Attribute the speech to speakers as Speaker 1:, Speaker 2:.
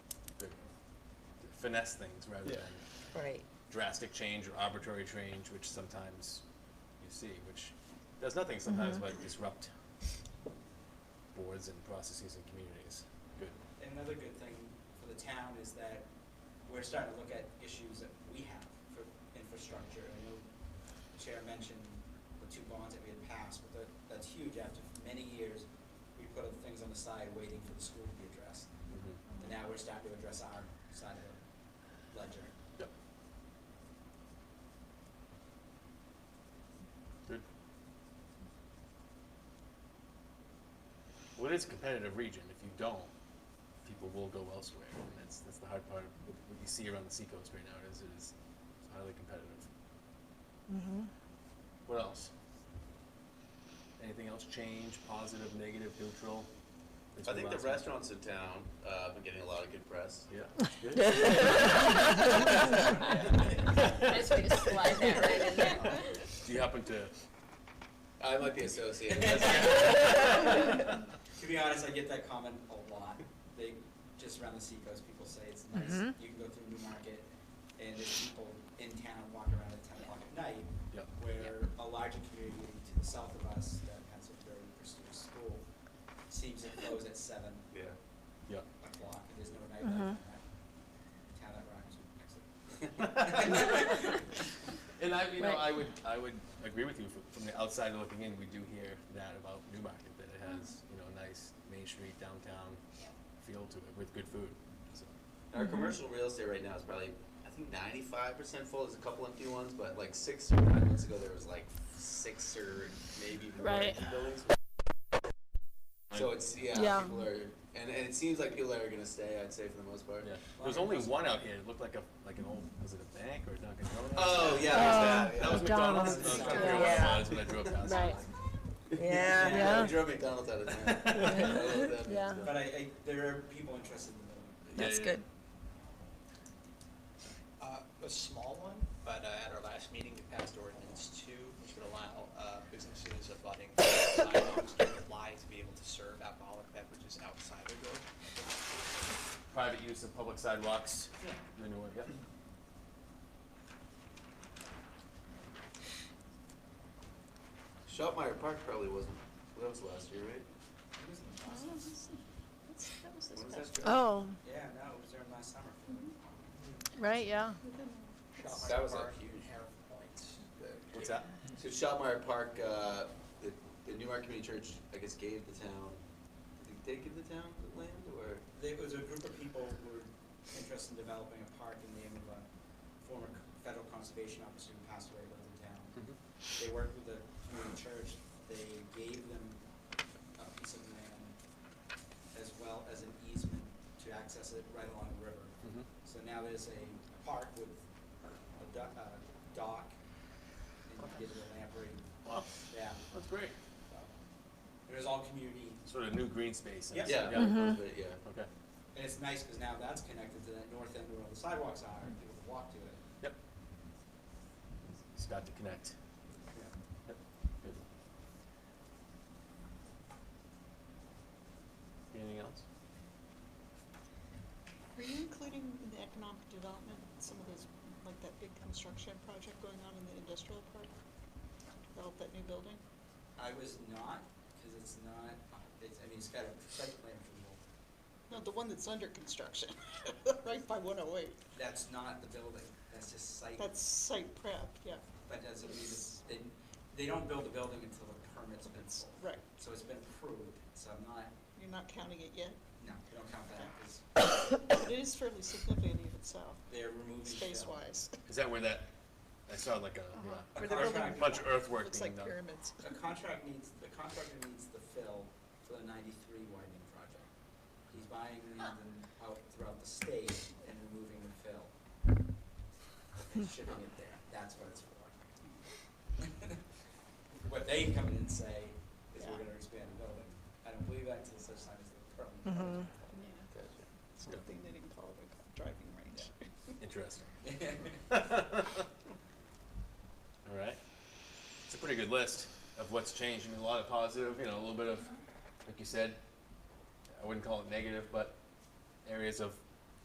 Speaker 1: finesse things rather
Speaker 2: Yeah.
Speaker 1: than
Speaker 3: Right.
Speaker 1: drastic change or arbitrary change, which sometimes you see, which does nothing sometimes but disrupt boards and processes and communities. Good.
Speaker 4: Another good thing for the town is that we're starting to look at issues that we have for infrastructure. I know the Chair mentioned the two bonds that we had passed, but that, that's huge. After many years, we put other things on the side waiting for the school to be addressed. And now we're starting to address our side of the ledger.
Speaker 1: Yep. Good. Well, it is a competitive region. If you don't, people will go elsewhere. And that's, that's the hard part of what what you see around the seacoast right now is it is highly competitive.
Speaker 3: Mm-hmm.
Speaker 1: What else? Anything else change, positive, negative, neutral? Since
Speaker 5: I
Speaker 1: we
Speaker 5: think the
Speaker 1: last met.
Speaker 5: restaurants in town uh, have been getting a lot of good press.
Speaker 1: Yeah. Good.
Speaker 6: Nice way to slide that right in there.
Speaker 1: Do you happen to?
Speaker 5: I might be associated.
Speaker 4: To be honest, I get that comment a lot. They, just around the seacoast, people say it's nice,
Speaker 3: Mhm.
Speaker 4: you can go through Newmarket, and there's people in town walking around at ten o'clock at night,
Speaker 1: Yep.
Speaker 4: where a larger community to the south of us, that has a very prestigious school, seems to close at seven
Speaker 5: yeah.
Speaker 1: Yeah.
Speaker 4: o'clock, and there's no
Speaker 3: Mhm.
Speaker 4: nightlife in that town that rhymes with Exeter.
Speaker 1: And I, you know,
Speaker 6: Right.
Speaker 1: I would, I would agree with you from, from the outside looking in. We do hear that about Newmarket that it has, you know, a nice Main Street downtown feel to it with good food. So,
Speaker 5: Our
Speaker 3: Mm-hmm.
Speaker 5: commercial real estate right now is probably, I think, ninety-five percent full. There's a couple empty ones, but like six or nine months ago, there was like six or maybe more
Speaker 6: Right.
Speaker 5: empty buildings. So it's yeah,
Speaker 3: Yeah.
Speaker 5: people are, and, and it seems like people are gonna stay. I'd say for the most part.
Speaker 1: yeah. There was only one out here. It looked like a like an old was it a bank or a Dunkin' Donuts?
Speaker 3: Oh,
Speaker 5: Oh yeah, there's that.
Speaker 1: That was McDonald's.
Speaker 3: McDonald's.
Speaker 1: I was trying to figure out
Speaker 3: Yeah.
Speaker 1: what it was when I drove past.
Speaker 6: Right.
Speaker 3: Yeah, yeah.
Speaker 5: We drove McDonald's out of town. I love that.
Speaker 3: Yeah.
Speaker 4: But I, I, there are people interested in the
Speaker 3: That's
Speaker 1: Yeah, yeah,
Speaker 3: good.
Speaker 7: Uh, A small one, but uh, at our last meeting, we passed ordinance two, which would allow uh, businesses abutting sidewalks to apply to be able to serve alcoholic beverages outside their door.
Speaker 1: Private use of public sidewalks. The new one, yep.
Speaker 5: Shopmeyer Park probably wasn't. That was last year, right? When was that?
Speaker 3: Oh,
Speaker 4: Yeah, no, it was there last summer.
Speaker 3: right, yeah.
Speaker 7: Shopper
Speaker 5: That was a
Speaker 7: Park,
Speaker 5: huge-
Speaker 7: Hare Point.
Speaker 1: What's that?
Speaker 5: So Shopmeyer Park, uh, the, the Newmarket Community Church, I guess, gave the town, did they give the town the land or?
Speaker 4: There was a group of people who were interested in developing a park in the name of a former c- federal conservation officer who passed away, lived in town. They worked with the community church, they gave them a piece of land as well as an easement to access it right along the river.
Speaker 1: Mhm.
Speaker 4: So now there's a park with a do- a dock, and you get the lamprey,
Speaker 1: Wow,
Speaker 4: yeah.
Speaker 1: that's great.
Speaker 4: so. It was all community
Speaker 1: Sort of new green space. in a
Speaker 4: Yeah.
Speaker 1: sense.
Speaker 5: Yeah,
Speaker 1: Yeah.
Speaker 5: it was, but yeah.
Speaker 1: Okay.
Speaker 4: And it's nice because now that's connected to that north end where all the sidewalks are, and people can walk to it.
Speaker 1: Yep. It's got to connect. Yep. Good. Anything else?
Speaker 8: Were you including in the economic development, some of those, like that big construction project going on in the industrial park? Develop that new building?
Speaker 4: I was not, because it's not, it's, I mean, it's got a site plan approval.
Speaker 8: No, the one that's under construction, right by one oh eight.
Speaker 4: That's not the building, that's just site,
Speaker 8: That's site prep, yeah,
Speaker 4: but doesn't mean it's, they, they don't build a building until the permit's been sold.
Speaker 8: right.
Speaker 4: So it's been approved, so I'm not,
Speaker 8: You're not counting it yet,
Speaker 4: no, we don't count that, because
Speaker 8: but it is fairly significant in itself,
Speaker 4: they're removing.
Speaker 8: space-wise.
Speaker 1: Is that where that, I saw like a, yeah,
Speaker 4: A
Speaker 8: Where they're building-
Speaker 1: a bunch
Speaker 4: contract-
Speaker 1: of earthwork
Speaker 8: Looks
Speaker 1: being
Speaker 8: like
Speaker 1: done.
Speaker 8: pyramids.
Speaker 4: A contract needs, the contractor needs the fill for the ninety-three widening project. He's buying land and out throughout the state and removing the fill. And shipping it there, that's what it's for. What they come in and say is we're gonna expand the building. I don't believe that until such time as the permit.
Speaker 8: It's a good thing they didn't call it a driving range.
Speaker 1: Interesting.
Speaker 4: comes.
Speaker 1: All right. It's a pretty good list of what's changed. I mean, a lot of positive, you know, a little bit of, like you said, I wouldn't call it negative, but areas of